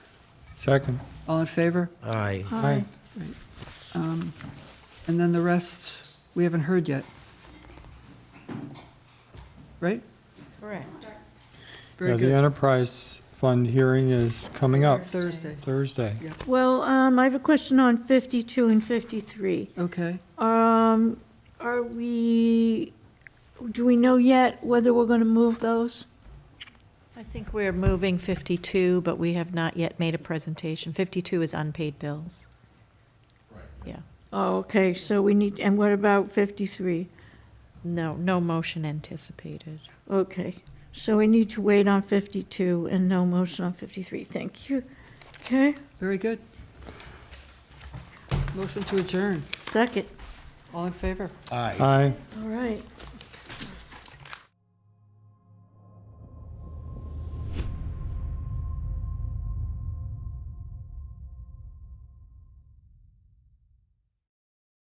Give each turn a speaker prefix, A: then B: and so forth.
A: Second.
B: All in favor?
C: Aye.
A: Aye.
B: And then the rest, we haven't heard yet. Right?
D: Correct.
A: Yeah,
B: Very
A: the
B: good.
A: enterprise fund hearing is coming up
B: Thursday,
A: Thursday.
D: Well, um, I have a question on 52 and 53.
B: okay.
D: Um, Are we, do we know yet whether we're going to move those?
E: I think we're moving 52, but we have not yet made a presentation. 52 is unpaid bills. Right. Yeah.
D: Oh, okay, so we need, and what about 53?
E: No, no motion anticipated.
D: Okay, so we need to wait on 52 and no motion on 53. Thank you. Okay,
B: Very good. Motion to adjourn.
D: second.
B: All in favor?
C: Aye.
A: Aye.
D: All right.